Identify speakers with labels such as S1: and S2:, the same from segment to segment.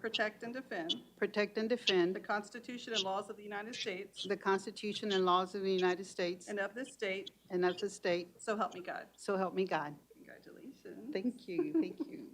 S1: protect, and defend
S2: protect, and
S1: the
S2: defend
S1: Constitution and laws of the United States
S2: the Constitution and laws of the United States
S1: and of this state,
S2: and of the state,
S1: so help me God.
S2: so help me God.
S1: Congratulations.
S2: Thank you, thank you.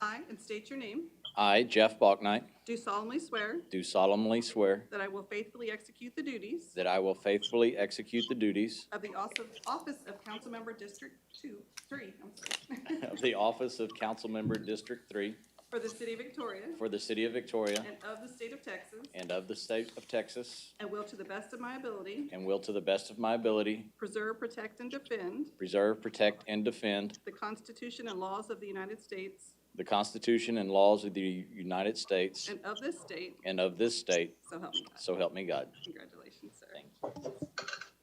S1: I, and state your name,
S3: I, Jeff Balknight,
S1: do solemnly swear
S3: do solemnly swear
S1: that I will faithfully execute the duties
S3: that I will faithfully execute the duties
S1: of the also- office of Councilmember District 2, 3, I'm sorry,
S3: of the office of council member District Three
S1: for the city of Victoria
S3: for the city of Victoria
S1: and of the state of Texas,
S3: and of the state of Texas,
S1: and will to the best of my ability
S3: and will to the best of my ability
S1: preserve, protect, and defend
S3: preserve, protect, and defend
S1: the Constitution and laws of the United States
S3: the Constitution and laws of the United States
S1: and of this state,
S3: and of this state,
S1: so help me God.
S3: so help me God.
S1: Congratulations, sir.
S3: Thank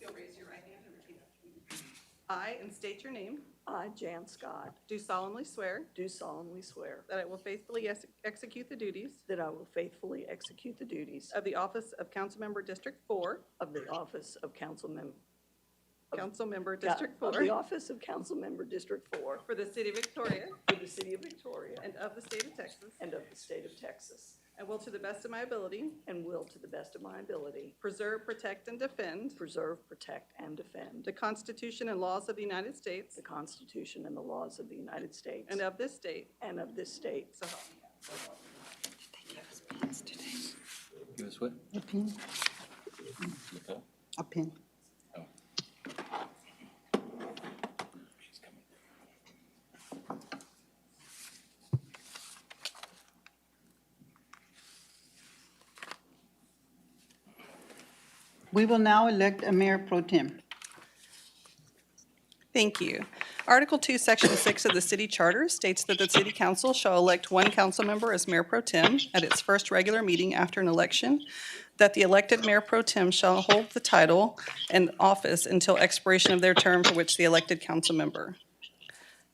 S1: You'll raise your right hand and repeat after me. I, and state your name,
S4: I, Jan Scott,
S1: do solemnly swear
S4: do solemnly swear
S1: that I will faithfully ex- execute the duties
S4: that I will faithfully execute the duties
S1: of the office of Councilmember District 4,
S4: of the office of council member.
S1: Councilmember District
S4: Of the
S1: 4,
S4: office of council member District Four
S1: for the city of Victoria
S4: for the city of Victoria
S1: and of the state of Texas,
S4: and of the state of Texas,
S1: and will to the best of my ability
S4: and will, to the best of my ability,
S1: preserve, protect, and defend
S4: preserve, protect, and defend
S1: the Constitution and laws of the United States
S4: the Constitution and the laws of the United States
S1: and of this state,
S4: and of this state.
S1: so help me God.
S3: Give us what?
S2: A pin, a pin. We will now elect a mayor pro tem.
S1: Thank you. Article 2, Section 6 of the City Charter states that the City Council shall elect one council member as Mayor Pro Tem at its first regular meeting after an election, that the elected Mayor Pro Tem shall hold the title and office until expiration of their term for which the elected council member.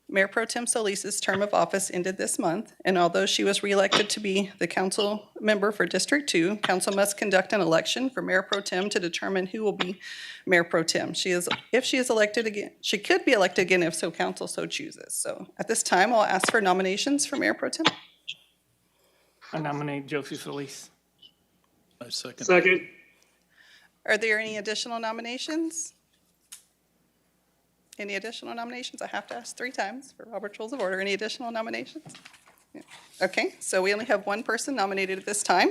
S1: Mayor Pro Tem Solis's term of office ended this month, and although she was reelected to be the council member for District Two, council must conduct an election for Mayor Pro Tem to determine who will be Mayor Pro Tem. She is, if she is elected again, she could be elected again if so council so chooses. So at this time, I'll ask for nominations for Mayor Pro Tem.
S5: I nominate Josie Solis.
S6: I second.
S7: Second,
S1: Are there any additional nominations? Any additional nominations? I have to ask three times for Robert's Rules of Order. Any additional nominations? Yeah. Okay, so we only have one person nominated at this time.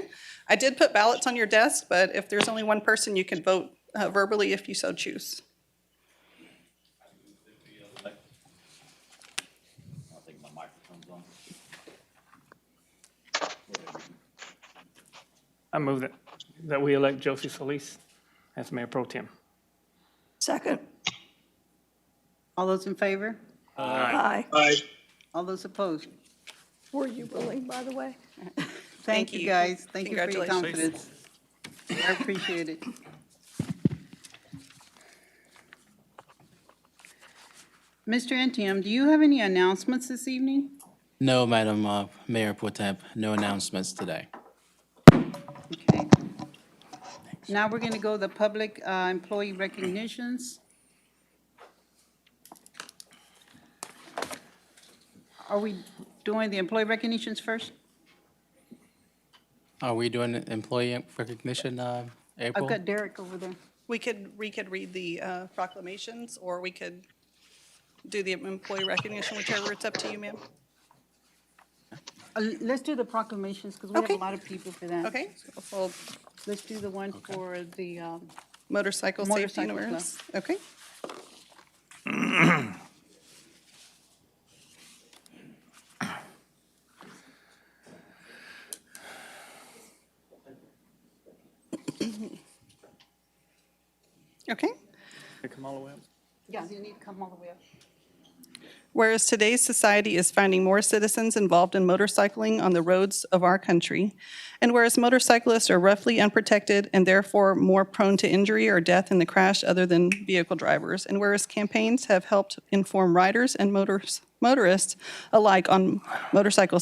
S1: I did put ballots on your desk, but if there's only one person, you can vote uh, verbally if you so choose.
S3: I think my microphone's on.
S5: I move that, that we elect Josie Solis as mayor pro tem.
S4: Second.
S2: All those in favor?
S4: Aye.
S7: aye,
S2: All those opposed?
S4: Were you willing, by the way?
S2: Thank you,
S1: you.
S2: guys. Thank you for your confidence.
S1: Congratulations.
S2: I appreciate it. Mr. Antium, do you have any announcements this evening?
S6: No, Madam uh, Mayor Potemp, no announcements today.
S2: Okay. Now we're going to go to the public uh, employee recognitions. Are we doing the employee recognitions first?
S6: Are we doing employee recognition, uh,
S2: I've
S6: April?
S2: got Derek over there.
S1: We could, we could read the uh, proclamations, or we could do the employee recognition, whichever, it's up to you, ma'am.
S2: Uh, Let's do the proclamations because we have
S1: Okay.
S2: a lot of people for that.
S1: Okay, well,
S2: Let's do the one for the, um,
S1: motorcycle safety and
S2: Motorcycle club.
S1: awareness. Okay. Okay.
S5: Kamala Webb.
S2: yeah, you need to come all the way up.
S1: Whereas today's society is finding more citizens involved in motorcycling on the roads of our country, and whereas motorcyclists are roughly unprotected and therefore more prone to injury or death in the crash other than vehicle drivers, and whereas campaigns have helped inform riders and motors- motorists alike on motorcycle